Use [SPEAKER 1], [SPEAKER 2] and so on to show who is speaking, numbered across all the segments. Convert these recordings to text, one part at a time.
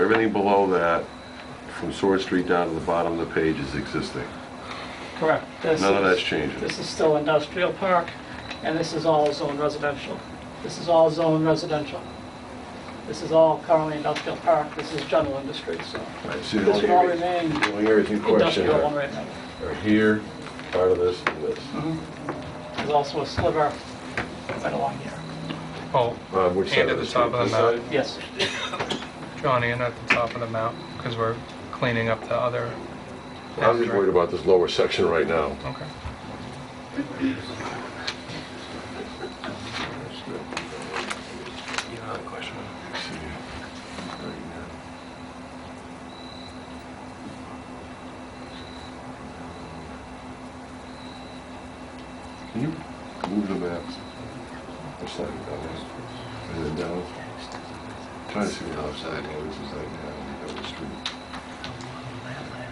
[SPEAKER 1] Everything below that, from Sword Street down to the bottom of the page is existing.
[SPEAKER 2] Correct. This
[SPEAKER 1] None of
[SPEAKER 2] is-
[SPEAKER 1] that's changing.
[SPEAKER 2] This is still industrial park, and this is all zone residential. This is all zone residential. This is all currently industrial park, this is general industry, so
[SPEAKER 1] See, the
[SPEAKER 2] this
[SPEAKER 1] only
[SPEAKER 2] will all
[SPEAKER 1] areas-
[SPEAKER 2] remain
[SPEAKER 1] the only areas in question
[SPEAKER 2] industrial one
[SPEAKER 1] are
[SPEAKER 2] right now.
[SPEAKER 1] are here, part of this, and this.
[SPEAKER 3] Mm-hmm.
[SPEAKER 2] There's also a sliver right along here.
[SPEAKER 3] Oh,
[SPEAKER 1] Bob, which side
[SPEAKER 3] and at the top
[SPEAKER 1] street?
[SPEAKER 3] of
[SPEAKER 1] This
[SPEAKER 3] the mountain,
[SPEAKER 1] side?
[SPEAKER 2] Yes,
[SPEAKER 3] John, and at the top of the mountain, because we're cleaning up the other.
[SPEAKER 1] I'm just worried about this lower section right now.
[SPEAKER 3] Okay.
[SPEAKER 1] You have a question? Can you move the map? Or slide it down there? Is it down? Trying to see what outside noise is like now, the other street.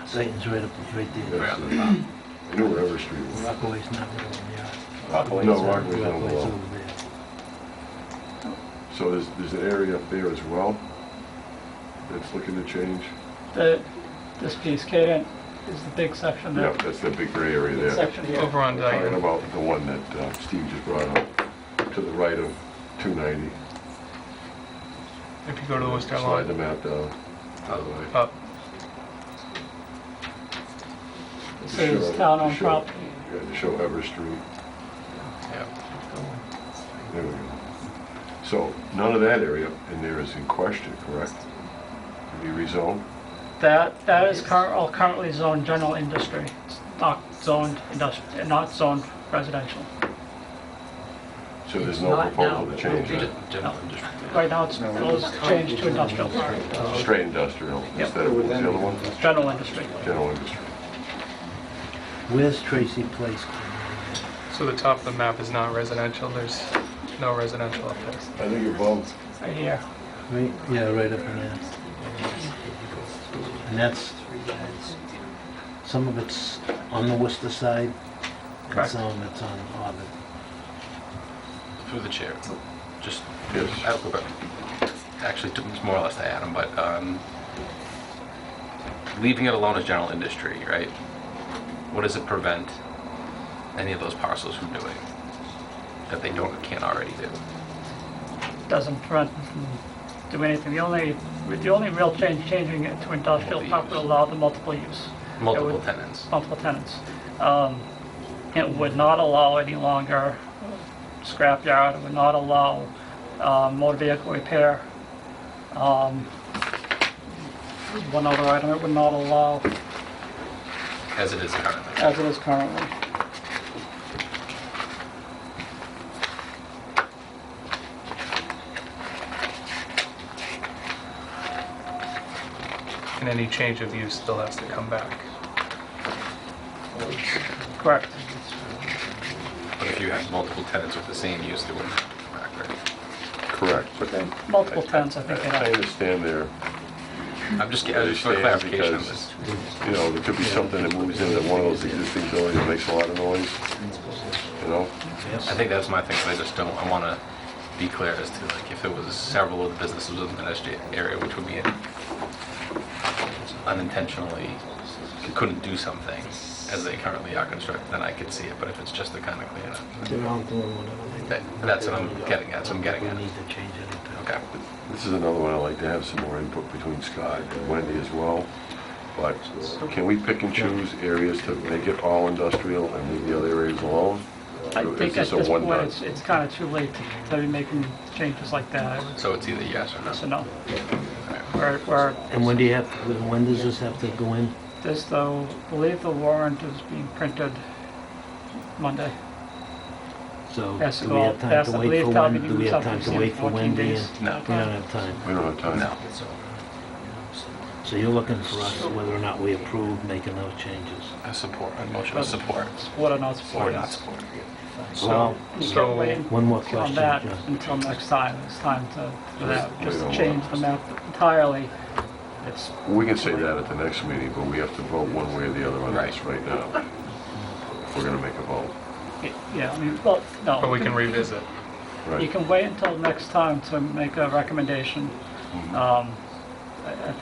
[SPEAKER 4] Satan's right up, right there.
[SPEAKER 1] That's the- I knew where Everett Street was.
[SPEAKER 4] Rockaway's not really over there.
[SPEAKER 1] No, Rockaway's not
[SPEAKER 4] Rockaway's
[SPEAKER 1] below.
[SPEAKER 4] over there.
[SPEAKER 1] So there's, there's an area up there as well that's looking to change?
[SPEAKER 2] the, this piece, Kaden, is the big section there.
[SPEAKER 1] Yeah, that's that big gray area
[SPEAKER 2] Big
[SPEAKER 1] there.
[SPEAKER 2] Section
[SPEAKER 3] Over
[SPEAKER 2] here.
[SPEAKER 3] on
[SPEAKER 1] We're Talking
[SPEAKER 3] Dyton.
[SPEAKER 1] about the one that uh, Steve just brought up, to the right of 290.
[SPEAKER 3] If you go to the Oh. Worcester
[SPEAKER 1] Slide the
[SPEAKER 3] line,
[SPEAKER 1] map down, out of the way.
[SPEAKER 3] up.
[SPEAKER 2] This
[SPEAKER 1] To
[SPEAKER 2] is
[SPEAKER 1] show- to
[SPEAKER 2] town-owned
[SPEAKER 1] show-
[SPEAKER 2] property.
[SPEAKER 1] Yeah, to show Ever Street.
[SPEAKER 3] Yeah.
[SPEAKER 1] There we go. So none of that area in there is in question, correct? To be rezoned?
[SPEAKER 2] That, that is curr- all currently zoned general industry, it's not zoned industrial, not zoned residential.
[SPEAKER 1] So there's no proposal to change that?
[SPEAKER 2] Right now, it's, it's changed to industrial park,
[SPEAKER 3] Uh-huh.
[SPEAKER 1] Straight industrial instead of what's the other one?
[SPEAKER 2] general industry.
[SPEAKER 1] General industry.
[SPEAKER 4] Where's Tracy Place?
[SPEAKER 3] So the top of the map is not residential, there's no residential up there.
[SPEAKER 1] I think you're both.
[SPEAKER 2] Right here.
[SPEAKER 4] Right, yeah, right up in there. And that's, some of it's on the Worcester side, and
[SPEAKER 3] Correct.
[SPEAKER 4] some of it's on Harvard.
[SPEAKER 5] Through the chair, just, I
[SPEAKER 1] Yes.
[SPEAKER 5] have a quick- actually, t- it's more or less to Adam, but um, leaving it alone as general industry, right? What does it prevent any of those parcels from doing that they don't, can't already do?
[SPEAKER 2] doesn't prevent them from doing anything. The only, the only real change, changing it to industrial park would allow the multiple use. It
[SPEAKER 5] Multiple
[SPEAKER 2] would-
[SPEAKER 5] tenants.
[SPEAKER 2] Multiple tenants. Um, It would not allow any longer scrapyard, it would not allow uh, motor vehicle repair. Um, One other item, it would not allow,
[SPEAKER 5] As it is currently.
[SPEAKER 2] as it is currently.
[SPEAKER 3] And any change of use still has to come back.
[SPEAKER 2] Correct.
[SPEAKER 5] But if you have multiple tenants with the same use, they wouldn't have to come back, right?
[SPEAKER 1] Correct, but then.
[SPEAKER 2] Multiple tenants, I think,
[SPEAKER 1] I
[SPEAKER 2] you know.
[SPEAKER 1] understand there.
[SPEAKER 5] I'm just, I just for
[SPEAKER 1] Understand
[SPEAKER 5] clarification on
[SPEAKER 1] because-
[SPEAKER 5] this.
[SPEAKER 1] you know, there could be something that moves into one of those existing buildings that makes a lot of noise, you know?
[SPEAKER 5] I think that's my thing, 'cause I just don't, I want to be clear as to like if it was several of the businesses within that SJ area, which would be unintentionally, couldn't do something as they currently are constructed, then I could see it, but if it's just to kind of clean it up.
[SPEAKER 4] They're all doing whatever
[SPEAKER 5] That- That's what I'm getting at, so I'm getting
[SPEAKER 4] We
[SPEAKER 5] at.
[SPEAKER 4] need to change it.
[SPEAKER 5] Okay.
[SPEAKER 1] This is another one I'd like to have some more input between Scott and Wendy as well, but can we pick and choose areas to make it all industrial and leave the other areas alone?
[SPEAKER 2] I
[SPEAKER 1] Or is
[SPEAKER 2] think at
[SPEAKER 1] a
[SPEAKER 2] this point,
[SPEAKER 1] one-dot?
[SPEAKER 2] it's, it's kind of too late to be making changes like that.
[SPEAKER 5] So it's either yes or no.
[SPEAKER 2] So no. Where, where,
[SPEAKER 4] And when do you have, when does this have to go in?
[SPEAKER 2] this though, I believe the warrant is being printed Monday.
[SPEAKER 4] So
[SPEAKER 2] Yes,
[SPEAKER 4] do we
[SPEAKER 2] well,
[SPEAKER 4] have time
[SPEAKER 2] that's-
[SPEAKER 4] to
[SPEAKER 2] I
[SPEAKER 4] wait
[SPEAKER 2] believe
[SPEAKER 4] for
[SPEAKER 2] town
[SPEAKER 4] Wendy?
[SPEAKER 2] meeting
[SPEAKER 4] Do we
[SPEAKER 2] is
[SPEAKER 4] have
[SPEAKER 2] up
[SPEAKER 4] time
[SPEAKER 2] in
[SPEAKER 4] to wait for
[SPEAKER 2] 14
[SPEAKER 4] Wendy?
[SPEAKER 2] days.
[SPEAKER 4] and-
[SPEAKER 5] No.
[SPEAKER 4] We don't have time.
[SPEAKER 1] We don't have time.
[SPEAKER 5] No.
[SPEAKER 4] So you're looking for us whether or not we approve making those changes.
[SPEAKER 5] I support, a motion of support
[SPEAKER 2] What are not
[SPEAKER 5] or
[SPEAKER 2] supported?
[SPEAKER 5] not support.
[SPEAKER 4] Well,
[SPEAKER 2] You
[SPEAKER 3] So-
[SPEAKER 2] can't wait
[SPEAKER 4] one more
[SPEAKER 2] on
[SPEAKER 4] question,
[SPEAKER 2] that
[SPEAKER 4] John.
[SPEAKER 2] until next time. It's time to, for that,
[SPEAKER 1] We
[SPEAKER 2] just to
[SPEAKER 1] don't
[SPEAKER 2] change
[SPEAKER 1] want-
[SPEAKER 2] the map entirely. It's,
[SPEAKER 1] We can say that at the next meeting, but we have to vote one way or the other on this right now. If we're gonna make a vote,
[SPEAKER 2] yeah, I mean, well, no.
[SPEAKER 3] But we can revisit.
[SPEAKER 2] You
[SPEAKER 1] right?
[SPEAKER 2] can wait until next time to make a recommendation. Um, I I